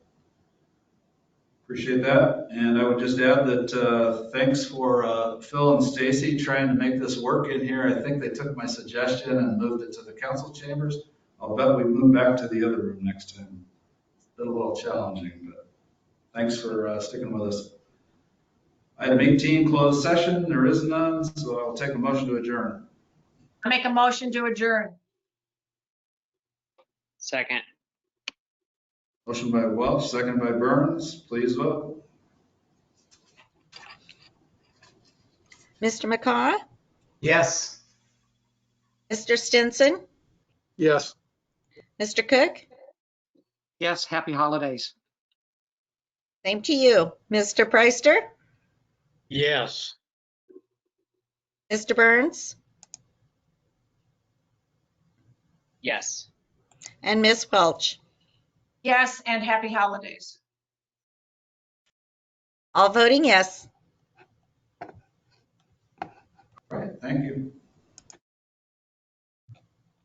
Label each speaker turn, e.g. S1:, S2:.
S1: Appreciate that. And I would just add that, uh, thanks for, uh, Phil and Stacy trying to make this work in here. I think they took my suggestion and moved it to the council chambers. I'll bet we move back to the other room next time. It's been a little challenging, but thanks for, uh, sticking with us. Item 18, closed session. There is none, so I'll take a motion to adjourn.
S2: I make a motion to adjourn.
S3: Second,
S1: Motion by Welch, second by Burns. Please vote.
S4: Mr. McCaw,
S5: Yes.
S4: Mr. Stinson,
S5: Yes.
S4: Mr. Cook,
S3: yes, happy holidays.
S4: same to you. Mr. Preister,
S5: Yes.
S4: Mr. Burns,
S3: Yes.
S4: and Ms. Welch.
S2: Yes, and happy holidays.
S4: All voting yes.
S1: Right, thank you.